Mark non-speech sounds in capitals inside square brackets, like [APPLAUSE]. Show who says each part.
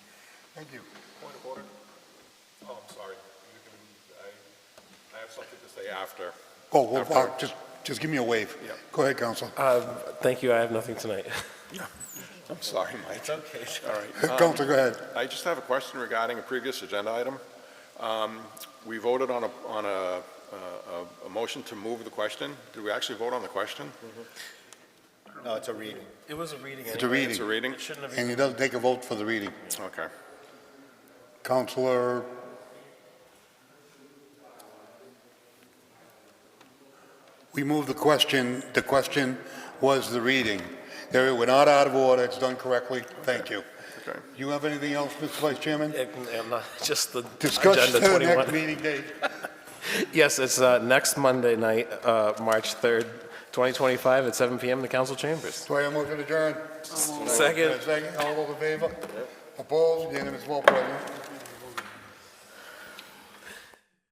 Speaker 1: Thank you.
Speaker 2: Point of order? Oh, I'm sorry. You can- I- I have something to say after.
Speaker 1: Oh, well,
Speaker 2: After-
Speaker 1: uh, just, just give me a wave.
Speaker 2: Yeah.
Speaker 1: Go ahead, Counsel.
Speaker 3: Um, Thank you, I have nothing tonight. [LAUGHS]
Speaker 2: I'm sorry, Mike. It's okay. All right. Um,
Speaker 1: Counsel, go ahead.
Speaker 2: I just have a question regarding a previous agenda item. Um, We voted on a, on a, a- a- a motion to move the question. Did we actually vote on the question?
Speaker 4: No, it's a reading.
Speaker 3: It was a reading.
Speaker 1: It's a
Speaker 3: anyway.
Speaker 1: reading.
Speaker 2: It's a reading?
Speaker 3: It shouldn't have
Speaker 1: And
Speaker 3: been.
Speaker 1: he doesn't take a vote for the reading.
Speaker 2: Okay.
Speaker 1: Counselor, we moved the question, the question was the reading. There, we're not out of order, it's done correctly, thank you.
Speaker 2: Okay.
Speaker 1: You have anything else, Mr. Vice Chairman?
Speaker 3: It- I'm not- [LAUGHS] Just the
Speaker 1: Discuss
Speaker 3: agenda
Speaker 1: the [LAUGHS] next
Speaker 3: 21.
Speaker 1: meeting date.
Speaker 3: Yes, it's uh, next Monday night, uh, March 3rd, 2025, at 7 PM in the council chambers.
Speaker 1: Do I have a motion to adjourn?
Speaker 3: Second.
Speaker 1: Second, all those in favor? Opposed, unanimous vote, President.